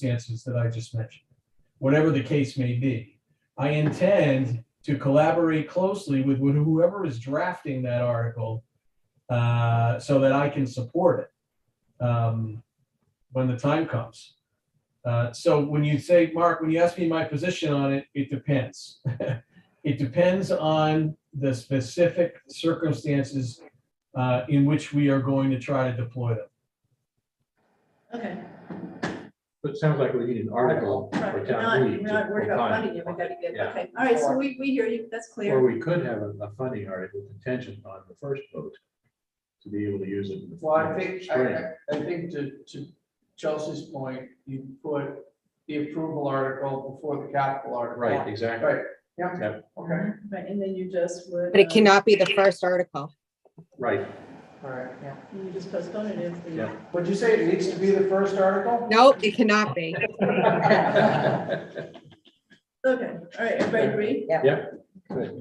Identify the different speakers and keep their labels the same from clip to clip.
Speaker 1: circumstances that I just mentioned, whatever the case may be. I intend to collaborate closely with whoever is drafting that article uh, so that I can support it um, when the time comes. Uh, So when you say, Mark, when you ask me my position on it, it depends. It depends on the specific circumstances uh, in which we are going to try to deploy them.
Speaker 2: Okay,
Speaker 3: But it sounds like we need an article
Speaker 2: right,
Speaker 3: for
Speaker 2: we're not,
Speaker 3: town
Speaker 2: we're
Speaker 3: meeting.
Speaker 2: not
Speaker 3: to-
Speaker 2: worried
Speaker 3: for
Speaker 2: about
Speaker 3: funding.
Speaker 2: funding it, we gotta get,
Speaker 3: Yeah.
Speaker 2: okay, all right, so we, we hear you, that's
Speaker 3: Or
Speaker 2: clear.
Speaker 3: we could have a, a funding article contingent on the first vote to be able to use it. in the-
Speaker 4: Well, I
Speaker 3: in the
Speaker 4: think, I,
Speaker 3: spring.
Speaker 4: I, I think to, to Chelsea's point, you put the approval article before the capital article.
Speaker 3: Right, exactly.
Speaker 4: Right, yeah,
Speaker 3: Yep.
Speaker 4: okay,
Speaker 2: Um, Right, and then you just would.
Speaker 5: But it
Speaker 2: uh,
Speaker 5: cannot be the first article.
Speaker 3: Right,
Speaker 4: all right, yeah.
Speaker 2: You just postpone it if the.
Speaker 3: Yeah.
Speaker 4: Would you say it needs to be the first article?
Speaker 5: Nope, it cannot be.
Speaker 2: Okay, all right, everybody agree?
Speaker 3: good.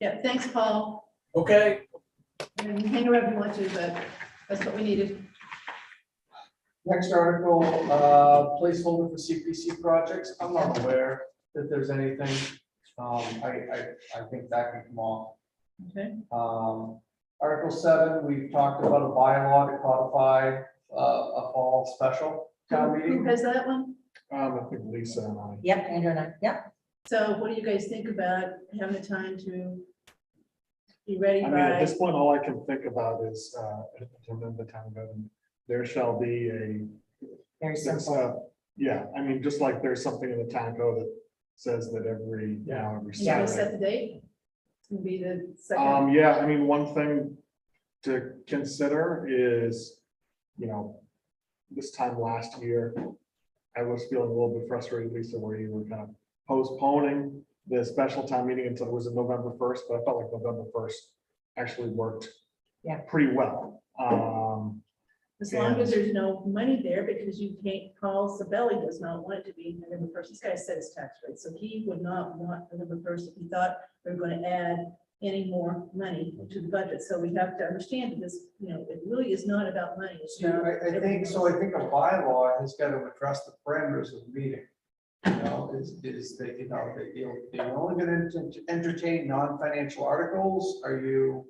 Speaker 2: Yeah, thanks, Paul.
Speaker 1: Okay,
Speaker 2: And hang around if you want to, but that's what we needed.
Speaker 4: Next article, uh, placeholder for CPC projects, I'm not aware that there's anything, um, I, I, I think that can come off.
Speaker 2: Okay,
Speaker 4: Um, Article seven, we've talked about a bylaw to codify, uh, a fall special town
Speaker 2: who
Speaker 4: meeting.
Speaker 2: has that one?
Speaker 4: Um, I think Lisa and I.
Speaker 6: Yep, Andrew and I, yep.
Speaker 2: So what do you guys think about having the time to be ready
Speaker 7: I mean, at
Speaker 2: by?
Speaker 7: this point, all I can think about is, uh, to remember the town government, there shall be a,
Speaker 6: Very
Speaker 7: it's
Speaker 6: simple.
Speaker 7: a- yeah, I mean, just like there's something in the town code that says that every, you know, every
Speaker 2: You want
Speaker 7: Saturday.
Speaker 2: to set the date? It's gonna be the second,
Speaker 7: Um, yeah, I mean, one thing to consider is, you know, this time last year, I was feeling a little bit frustrated, Lisa, where you were kind of postponing the special town meeting until it was in November first, but I felt like November first actually worked
Speaker 6: Yeah.
Speaker 7: pretty well. Um,
Speaker 2: as long as there's no money there, because you can't, Paul Sabelli does not want it to be November first. This guy set his tax rate, so he would not want November first if he thought we were gonna add any more money to the budget. So we have to understand that this, you know, it really is not about money. It's
Speaker 4: So
Speaker 2: about
Speaker 4: I, I think, so I think a bylaw has got to address the parameters of the meeting. You know, is, is that, you know, that you're, you're only going to entertain non-financial articles, are you?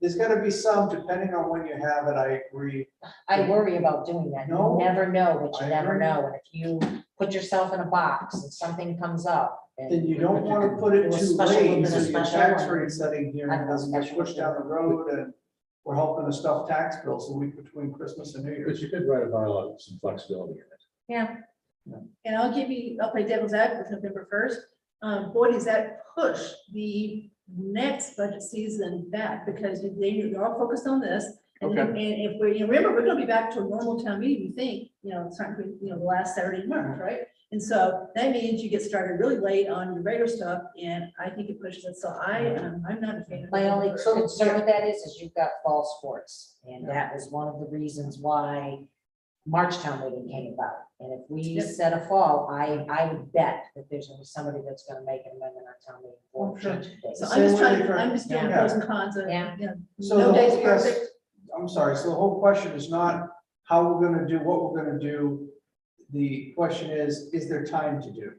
Speaker 4: There's got to be some, depending on when you have it, I agree.
Speaker 6: I worry about doing that.
Speaker 4: No.
Speaker 6: You never know what you
Speaker 4: I
Speaker 6: never
Speaker 4: agree.
Speaker 6: know. And if you put yourself in a box and something comes up.
Speaker 4: Then
Speaker 6: and
Speaker 4: you don't want to put it
Speaker 6: Do a
Speaker 4: too
Speaker 6: special
Speaker 4: late,
Speaker 6: one,
Speaker 4: so
Speaker 6: then a
Speaker 4: your
Speaker 6: special
Speaker 4: tax
Speaker 6: one.
Speaker 4: rate setting here and doesn't get pushed down the road and we're helping to stuff tax bills the week between Christmas and New
Speaker 3: But
Speaker 4: Year's.
Speaker 3: you could write a bylaw with some flexibility in it.
Speaker 6: Yeah,
Speaker 2: And I'll give you, I'll play devil's advocate with November first. Um, boy, does that push the next budget season back because they, they're all focused on this. And then- and if we, you remember, we're gonna be back to a normal town meeting, you think, you know, it's not, gonna be, you know, the last Saturday in
Speaker 4: Mm-hmm.
Speaker 2: March, right? And so that means you get started really late on your regular stuff and I think it pushes it. So I,
Speaker 4: Mm-hmm.
Speaker 2: um, I'm not a fan. of
Speaker 6: my only
Speaker 2: November.
Speaker 6: concern with that is, is you've got fall sports. And that was one of the reasons why March town meeting came about. And if we
Speaker 2: Yep.
Speaker 6: set a fall, I, I would bet that there's gonna be somebody that's gonna make an amendment on town meeting.
Speaker 4: Oh,
Speaker 6: for
Speaker 4: sure.
Speaker 6: change the date.
Speaker 2: So I'm just
Speaker 4: Same way
Speaker 2: trying,
Speaker 4: for-
Speaker 2: I'm just doing
Speaker 4: Yeah.
Speaker 2: pros and cons of,
Speaker 6: Yeah.
Speaker 2: yeah.
Speaker 4: So
Speaker 2: No
Speaker 4: the
Speaker 2: day's
Speaker 4: whole quest,
Speaker 2: perfect.
Speaker 4: I'm sorry, so the whole question is not how we're gonna do, what we're gonna do. The question is, is there time to do?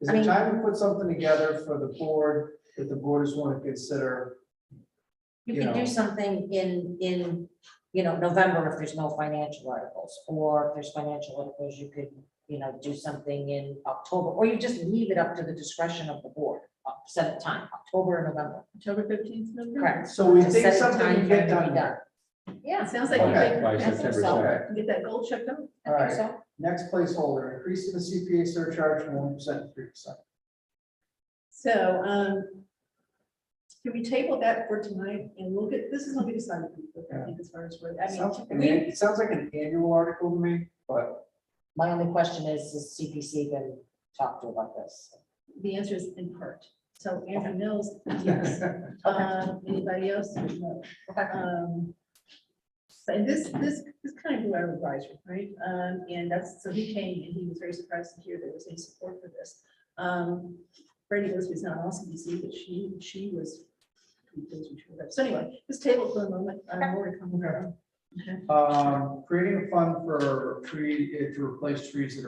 Speaker 4: Is
Speaker 6: I
Speaker 4: there
Speaker 6: mean-
Speaker 4: time to put something together for the board that the board is want to consider?
Speaker 6: You
Speaker 4: you
Speaker 6: can
Speaker 4: know.
Speaker 6: do something in, in, you know, November if there's no financial articles, or if there's financial articles, you could, you know, do something in October, or you just leave it up to the discretion of the board, uh, set a time, October or November,
Speaker 2: October fifteenth, November.
Speaker 6: correct?
Speaker 4: So we
Speaker 6: To
Speaker 4: think
Speaker 6: set a
Speaker 4: something
Speaker 6: time
Speaker 4: can get
Speaker 6: for it to
Speaker 4: done
Speaker 6: be
Speaker 4: there.
Speaker 2: It
Speaker 6: Yeah.
Speaker 2: sounds like you
Speaker 3: By
Speaker 2: get,
Speaker 3: by
Speaker 6: that's
Speaker 3: September
Speaker 6: yourself.
Speaker 3: seventh.
Speaker 4: Okay,
Speaker 2: get that goal checked out.
Speaker 6: I think
Speaker 4: Alright.
Speaker 6: so.
Speaker 4: next placeholder, increase in the CPA surcharge from one percent to three percent.
Speaker 2: So, um, can we table that for tonight and we'll get, this is what we decided, I think, as far as, where- I
Speaker 4: Sounds, I
Speaker 2: mean,
Speaker 4: mean,
Speaker 2: we,
Speaker 4: it sounds like an annual article to me, but
Speaker 6: My only question is, is CPC been talked to about this?
Speaker 2: the answer is in part. So Andrew knows, yes. Um, anybody else? No. Um, So and this, this, this kind of do our advisor, right? Um, and that's, so he came and he was very surprised to hear there was any support for this. Um, Brady was, was not on CBC, but she, she was. she was- So anyway, this table for a moment, I'm more to come.
Speaker 4: Um, creating a fund for tree, eh, to replace trees that are.